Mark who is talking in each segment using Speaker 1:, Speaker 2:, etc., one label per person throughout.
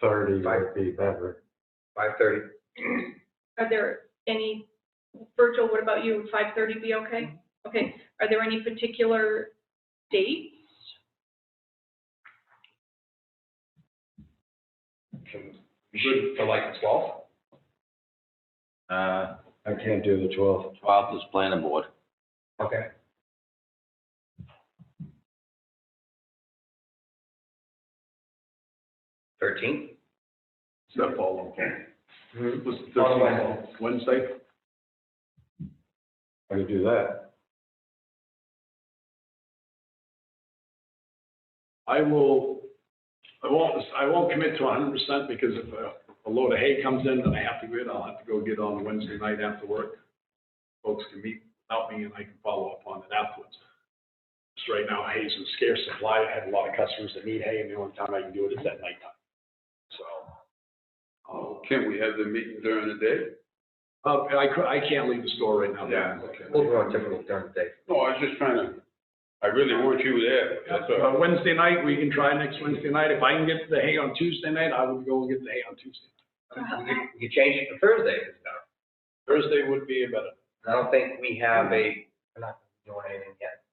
Speaker 1: thirty would be better.
Speaker 2: five thirty.
Speaker 3: Are there any, Virgil, what about you, five thirty be okay? Okay, are there any particular dates?
Speaker 2: Shoot for like the twelfth?
Speaker 4: Uh,
Speaker 1: I can't do the twelfth.
Speaker 4: twelfth is planning board.
Speaker 2: Okay. Thirteenth?
Speaker 5: That fall, okay. Was it
Speaker 2: Fall,
Speaker 5: 13th, Wednesday?
Speaker 1: I could do that.
Speaker 5: I will, I won't, I won't commit to hundred percent because if a- a load of hay comes in and I have to go in, I'll have to go get on Wednesday night after work. Folks can meet without me and I can follow up on it afterwards. Just right now, hay's in scarce supply. I have a lot of customers that need hay and the only time I can do it is at nighttime. So,
Speaker 6: Oh, can't we have the meeting during the day?
Speaker 5: uh, I cou- I can't leave the store right now.
Speaker 6: Yeah, okay.
Speaker 2: We'll do it differently during the day.
Speaker 6: No, I was just trying to, I really want you there, that's all.
Speaker 5: Uh, Wednesday night, we can try next Wednesday night. If I can get the hay on Tuesday night, I will go and get the hay on Tuesday.
Speaker 2: We could, we could change it to Thursday if it's done.
Speaker 5: Thursday would be a better.
Speaker 2: I don't think we have a, we're not doing anything yet.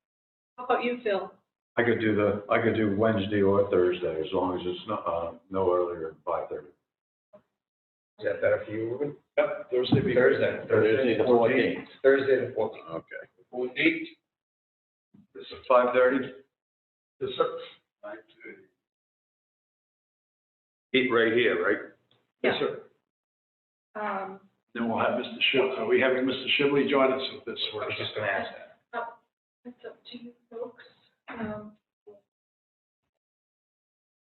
Speaker 3: How about you, Phil?
Speaker 1: I could do the, I could do Wednesday or Thursday, as long as it's not, uh, no earlier than five thirty.
Speaker 2: Is that better for you, Ruben?
Speaker 5: Yep, Thursday be
Speaker 2: Thursday.
Speaker 4: Thursday the fourteenth.
Speaker 2: Thursday the fourteenth.
Speaker 6: Okay.
Speaker 2: Fourteenth?
Speaker 6: It's at five thirty?
Speaker 5: Yes, sir.
Speaker 6: Five thirty. Eat right here, right?
Speaker 5: Yes, sir.
Speaker 3: Um,
Speaker 5: Then we'll have Mr. Shibley. Are we having Mr. Shibley join us with this
Speaker 2: I
Speaker 5: work?
Speaker 2: was just gonna ask that.
Speaker 3: it's up to you folks. Um,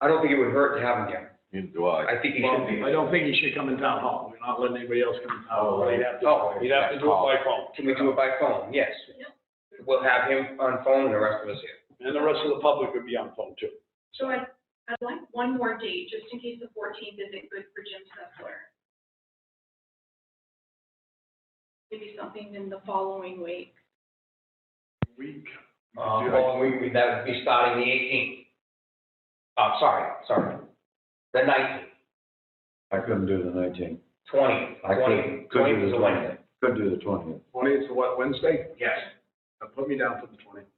Speaker 2: I don't think it would hurt to have him here.
Speaker 4: You do I.
Speaker 2: I think he should be.
Speaker 5: I don't think he should come in town hall. We're not letting anybody else come in town hall. He'd have to-
Speaker 2: Oh,
Speaker 5: He'd have to do it by phone.
Speaker 2: Can we do it by phone? Yes.
Speaker 3: Yep.
Speaker 2: We'll have him on phone and the rest of us here.
Speaker 5: And the rest of the public would be on phone too.
Speaker 3: So I, I'd like one more date, just in case the fourteenth isn't good for Jim Sessler. Maybe something in the following week.
Speaker 5: Week.
Speaker 2: Uh,
Speaker 5: Yeah.
Speaker 2: well, we, we, that would be starting the eighteenth. Uh, sorry, sorry. The nineteenth,
Speaker 1: I couldn't do the nineteenth.
Speaker 2: twentieth,
Speaker 1: I
Speaker 2: twentieth,
Speaker 1: could, could
Speaker 2: twentieth
Speaker 1: do
Speaker 2: is
Speaker 1: the
Speaker 2: a
Speaker 1: twentieth.
Speaker 2: Wednesday.
Speaker 1: Could do the twentieth.
Speaker 5: Twentieth to what, Wednesday?
Speaker 2: Yes.
Speaker 5: Uh, Put me down for the twentieth.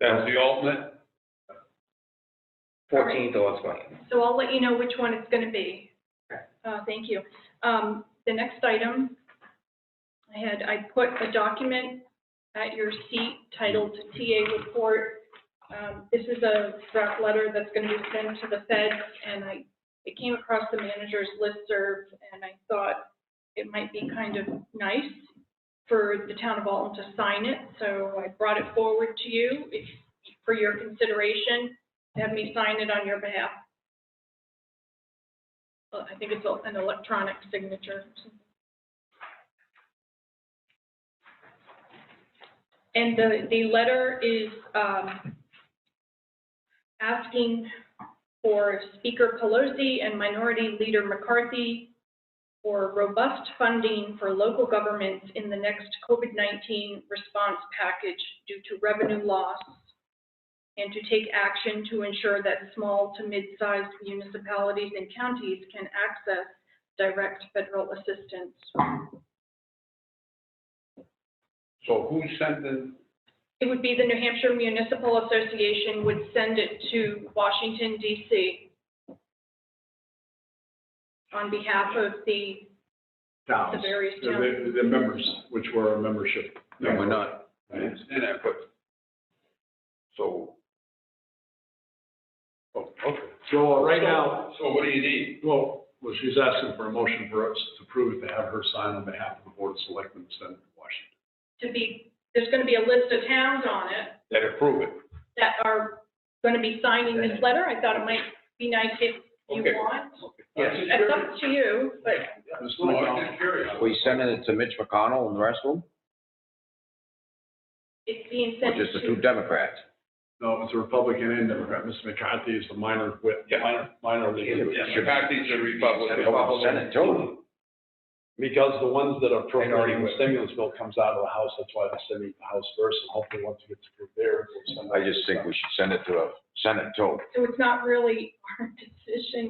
Speaker 6: That's the alternate?
Speaker 2: Fourteenth or twentieth.
Speaker 3: So I'll let you know which one it's gonna be. Uh, thank you. Um, the next item, I had, I put a document at your seat titled TA report. Um, this is a draft letter that's gonna be sent to the feds, and I, it came across the manager's listserv, and I thought it might be kind of nice for the town of Alton to sign it, so I brought it forward to you if, for your consideration. Have me sign it on your behalf. Well, I think it's a- an electronic signature. And the, the letter is, um, asking for Speaker Pelosi and Minority Leader McCarthy for robust funding for local governments in the next COVID-19 response package due to revenue loss and to take action to ensure that small to mid-sized municipalities and counties can access direct federal assistance.
Speaker 6: So who sent the,
Speaker 3: It would be the New Hampshire Municipal Association would send it to Washington DC on behalf of the,
Speaker 5: Towns.
Speaker 3: The various
Speaker 5: They're-
Speaker 3: towns.
Speaker 5: they're- they're members, which were a membership.
Speaker 6: no, we're not, I understand that, but, so. Oh, okay.
Speaker 5: So uh, right now,
Speaker 6: So what do you need?
Speaker 5: Well, well, she's asking for a motion for us to approve to have her sign on behalf of the Board of Selectmen to send it to Washington.
Speaker 3: to be, there's going to be a list of towns on it
Speaker 6: That approve it.
Speaker 3: that are going to be signing this letter. I thought it might be nice if you
Speaker 6: Okay.
Speaker 3: want.
Speaker 2: Yes.
Speaker 3: It's up to you, but
Speaker 5: Mr.
Speaker 6: No,
Speaker 5: McDonald,
Speaker 6: I'm just curious.
Speaker 4: We sending it to Mitch McConnell and the rest of them,
Speaker 3: it's being
Speaker 4: or
Speaker 3: sent to.
Speaker 4: just the two Democrats?
Speaker 5: No, it's a Republican and Democrat. Mr. McCarthy is the minor whip,
Speaker 6: Yeah.
Speaker 5: minor, minor leader.
Speaker 6: Yeah, McCarthy's a Republican.
Speaker 4: Well, Send it to them.
Speaker 5: Because the ones that are
Speaker 2: Minority
Speaker 5: appropriating the
Speaker 2: whip.
Speaker 5: stimulus bill comes out of the House, that's why they're sending it to the House first, and hopefully once it gets approved there, we'll send it.
Speaker 4: I just think we should send it to a, send it to them.
Speaker 3: So it's not really our decision